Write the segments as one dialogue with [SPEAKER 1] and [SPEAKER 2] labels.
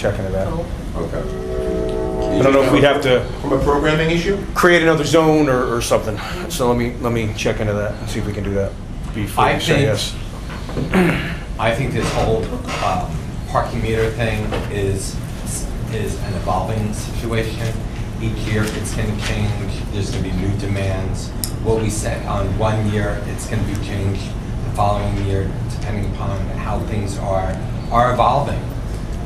[SPEAKER 1] check into that.
[SPEAKER 2] Okay.
[SPEAKER 1] I don't know if we'd have to
[SPEAKER 2] From a programming issue?
[SPEAKER 1] create another zone or, or something. So let me, let me check into that and see if we can do that before
[SPEAKER 3] I
[SPEAKER 1] we say
[SPEAKER 3] think-
[SPEAKER 1] yes.
[SPEAKER 3] I think this whole um, parking meter thing is, is an evolving situation. Each year, it's going to change, there's going to be new demands. What we set on one year, it's going to be changed the following year, depending upon how things are, are evolving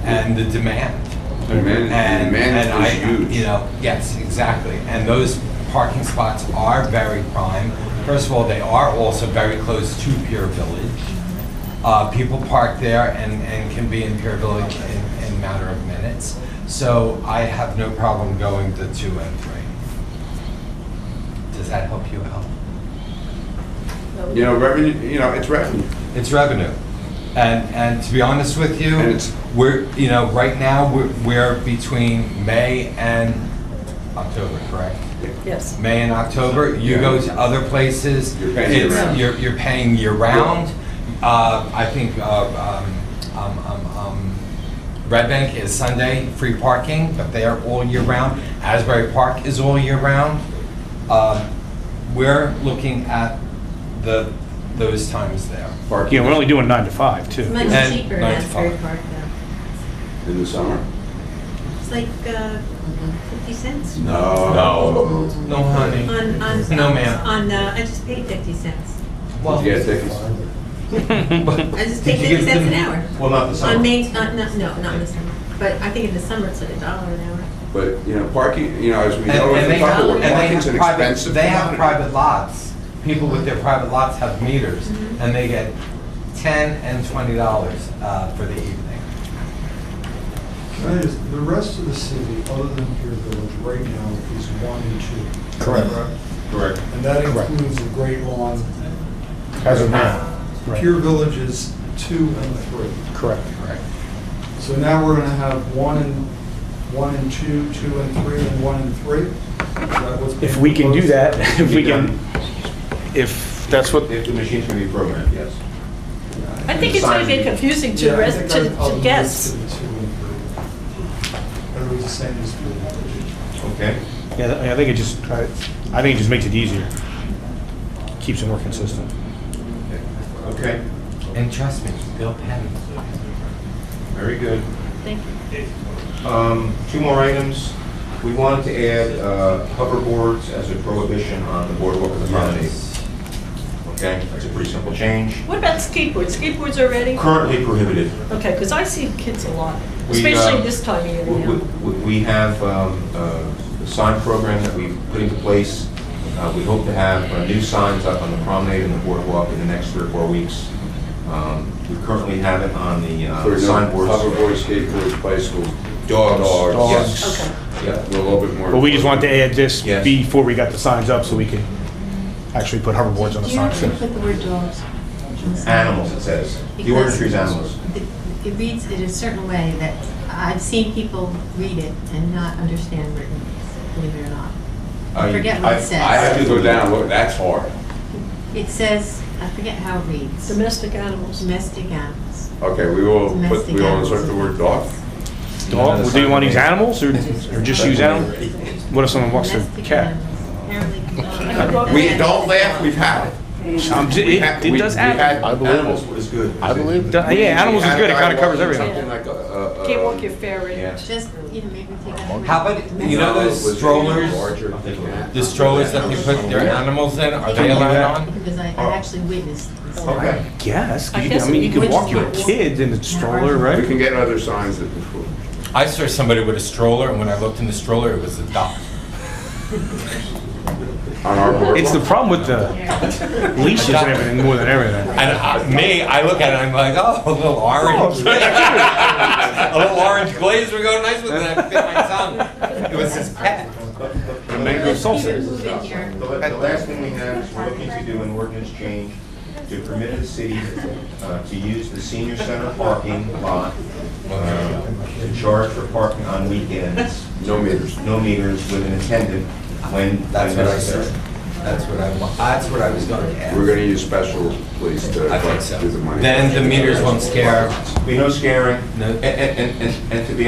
[SPEAKER 3] and the demand.
[SPEAKER 4] The demand, the
[SPEAKER 3] And, and I,
[SPEAKER 4] demand is huge.
[SPEAKER 3] you know, yes, exactly. And those parking spots are very prime. First of all, they are also very close to Pier Village. Uh, people park there and, and can be in Pier Village in, in a matter of minutes. So I have no problem going to two and three. Does that help you out?
[SPEAKER 4] You know, revenue, you know, it's revenue.
[SPEAKER 3] It's revenue. And, and to be honest with you,
[SPEAKER 4] And it's-
[SPEAKER 3] we're, you know, right now, we're, we're between May and October, correct?
[SPEAKER 5] Yes.
[SPEAKER 3] May and October, you go to other places.
[SPEAKER 4] You're paying year
[SPEAKER 3] it's-
[SPEAKER 4] round.
[SPEAKER 3] You're, you're paying year-round. Uh, I think, uh, um, um, um, um, Red Bank is Sunday, free parking, but they are all year-round. Asbury Park is all year-round. Um, We're looking at the, those times there.
[SPEAKER 4] Parking
[SPEAKER 6] Yeah, we're only doing nine to five, too.
[SPEAKER 5] Much
[SPEAKER 3] And
[SPEAKER 5] cheaper in
[SPEAKER 3] nine to
[SPEAKER 5] Asbury
[SPEAKER 3] five.
[SPEAKER 5] Park now.
[SPEAKER 4] in the summer.
[SPEAKER 5] It's like uh, 50 cents.
[SPEAKER 4] No.
[SPEAKER 3] No, honey.
[SPEAKER 5] On, on.
[SPEAKER 3] No, ma'am.
[SPEAKER 5] On, uh, I just paid 50 cents.
[SPEAKER 3] Well,
[SPEAKER 4] Did you get tickets?
[SPEAKER 5] I just
[SPEAKER 3] Did
[SPEAKER 5] paid
[SPEAKER 3] you
[SPEAKER 5] 50
[SPEAKER 3] give
[SPEAKER 5] cents
[SPEAKER 3] them-
[SPEAKER 5] an hour.
[SPEAKER 2] Well, not the
[SPEAKER 3] Oh.
[SPEAKER 2] summer.
[SPEAKER 5] On Main, not, not- no, not in the summer. But I think in the summer it's like a dollar an hour.
[SPEAKER 4] But, you know, parking, you know, as we
[SPEAKER 3] And-
[SPEAKER 4] know, in
[SPEAKER 3] and they have-
[SPEAKER 4] Tupperware,
[SPEAKER 3] and they have
[SPEAKER 4] parking's an
[SPEAKER 3] private-
[SPEAKER 4] expensive
[SPEAKER 3] They have
[SPEAKER 4] commodity.
[SPEAKER 3] private lots. People with their private lots have meters,
[SPEAKER 5] Mm-hmm.
[SPEAKER 3] and they get ten and twenty dollars uh, for the evening.
[SPEAKER 7] That is, the rest of the city, other than Pier Village, right now is one and two.
[SPEAKER 1] Correct.
[SPEAKER 2] Correct.
[SPEAKER 7] And that
[SPEAKER 1] Correct.
[SPEAKER 7] includes the Great Lawn.
[SPEAKER 1] As of
[SPEAKER 8] Uh,
[SPEAKER 1] now. Right.
[SPEAKER 7] Pier Village is two and three.
[SPEAKER 1] Correct.
[SPEAKER 3] Correct.
[SPEAKER 7] So now we're gonna have one and, one and two, two and three, and one and three? Is that what's being
[SPEAKER 1] If we can do
[SPEAKER 7] proposed?
[SPEAKER 1] that, if we can, if that's what,
[SPEAKER 2] If the machines can be programmed, yes.
[SPEAKER 5] I think it's going to be confusing
[SPEAKER 7] Yeah,
[SPEAKER 5] to
[SPEAKER 7] I
[SPEAKER 5] res,
[SPEAKER 7] think
[SPEAKER 5] to
[SPEAKER 7] I'd- I'll
[SPEAKER 5] to
[SPEAKER 7] move
[SPEAKER 5] guess.
[SPEAKER 7] to the two and three. Or we just saying just do it?
[SPEAKER 2] Okay.
[SPEAKER 1] yeah, I think it just, I I think it just makes it easier. Keeps it more consistent.
[SPEAKER 2] Okay,
[SPEAKER 3] And trust me, Bill Penn.
[SPEAKER 2] very good.
[SPEAKER 5] Thank you.
[SPEAKER 2] Um, Two more items. We wanted to add uh, hoverboards as a prohibition on the boardwalk of the promenade. Okay, that's a pretty simple change.
[SPEAKER 5] What about skateboards? Skateboards already?
[SPEAKER 2] Currently prohibited.
[SPEAKER 5] Okay, because I see kids a lot,
[SPEAKER 2] We, uh,
[SPEAKER 5] especially this time of year
[SPEAKER 2] We-
[SPEAKER 5] now.
[SPEAKER 2] we- We have um, uh, a sign program that we've put into place. Uh, We hope to have uh, new signs up on the promenade and the boardwalk in the next three or four weeks. Um, We currently have it on the
[SPEAKER 4] For
[SPEAKER 2] uh,
[SPEAKER 4] no-
[SPEAKER 2] signboards.
[SPEAKER 4] Hoverboards, skateboards, bicycles,
[SPEAKER 2] Dogs.
[SPEAKER 4] dogs.
[SPEAKER 2] yes.
[SPEAKER 5] Okay.
[SPEAKER 4] Yeah, a little bit more.
[SPEAKER 1] But we just wanted to add this
[SPEAKER 2] Yes.
[SPEAKER 1] before we got the signs up so we could actually put hoverboards on the
[SPEAKER 8] Do you have to
[SPEAKER 1] signs.
[SPEAKER 8] put the word dogs?
[SPEAKER 2] Animals, it says. The ordinance reads animals.
[SPEAKER 8] It it reads it a certain way that I've seen people read it and not understand written, believe it or not.
[SPEAKER 2] I-
[SPEAKER 8] forget what it
[SPEAKER 2] I-
[SPEAKER 8] says.
[SPEAKER 4] I have to go down, look, that's hard.
[SPEAKER 8] It says, I forget how it reads,
[SPEAKER 5] Domestic animals.
[SPEAKER 7] Uh,
[SPEAKER 8] domestic animals.
[SPEAKER 4] Okay, we will, Oh, but
[SPEAKER 8] Domestic
[SPEAKER 4] we will
[SPEAKER 8] animals.
[SPEAKER 4] insert the word dog.
[SPEAKER 1] Dog, do you want to use animals or or just use animals? What if someone walks their
[SPEAKER 8] Domestic
[SPEAKER 1] cat?
[SPEAKER 8] animals. Apparently.
[SPEAKER 5] Uh,
[SPEAKER 4] We, don't laugh, we've had it.
[SPEAKER 1] Um, j-
[SPEAKER 4] We
[SPEAKER 1] It
[SPEAKER 4] had-
[SPEAKER 1] it
[SPEAKER 4] we-
[SPEAKER 1] does
[SPEAKER 4] we
[SPEAKER 1] happen.
[SPEAKER 4] had Animals was good.
[SPEAKER 9] I believe
[SPEAKER 1] Do- Yeah, animals is good, it kind of covers everything.
[SPEAKER 4] Something like a- a- a-
[SPEAKER 5] Can't walk your ferry.
[SPEAKER 2] Yeah.
[SPEAKER 8] Just, you know, maybe take out. the word
[SPEAKER 3] How about, you know
[SPEAKER 4] Was
[SPEAKER 3] those
[SPEAKER 4] it
[SPEAKER 3] strollers,
[SPEAKER 4] larger? I think it was.
[SPEAKER 3] the strollers that we put their animals in, are they allowed on?
[SPEAKER 8] Because I I actually witnessed. this.
[SPEAKER 2] Okay.
[SPEAKER 1] Yes,
[SPEAKER 5] I
[SPEAKER 1] you can-
[SPEAKER 5] guess
[SPEAKER 1] I mean, you
[SPEAKER 5] we
[SPEAKER 1] could
[SPEAKER 8] would
[SPEAKER 1] walk your
[SPEAKER 8] just-
[SPEAKER 1] kids in the stroller,
[SPEAKER 4] We can
[SPEAKER 1] right?
[SPEAKER 4] get other signs that before.
[SPEAKER 3] I saw somebody with a stroller, and when I looked in the stroller, it was a dog.
[SPEAKER 4] on our board.
[SPEAKER 1] It's the problem with the leashes and everything more than everything.
[SPEAKER 3] And I- me, I look at it, I'm like, oh, a little orange.
[SPEAKER 1] Oh,
[SPEAKER 3] A little orange glaze would go nice with it, and I bit my tongue. It was his pet.
[SPEAKER 2] The mango
[SPEAKER 8] Let's
[SPEAKER 2] salsa.
[SPEAKER 8] either move in here.
[SPEAKER 2] The la- the last thing we have is we're looking to do an ordinance change to permit the city uh, to use the senior center parking lot uh, to charge for parking on weekends.
[SPEAKER 4] No meters.
[SPEAKER 2] No meters with an attendant when
[SPEAKER 3] That's what I
[SPEAKER 2] necessary.
[SPEAKER 3] said. That's what I, wa- that's what I was going to ask.
[SPEAKER 4] We're gonna use special police to uh,
[SPEAKER 3] I think so.
[SPEAKER 4] do the money.
[SPEAKER 3] Then the meters won't scare
[SPEAKER 2] Be no scaring.
[SPEAKER 3] No.
[SPEAKER 2] And- And, and, and- and to be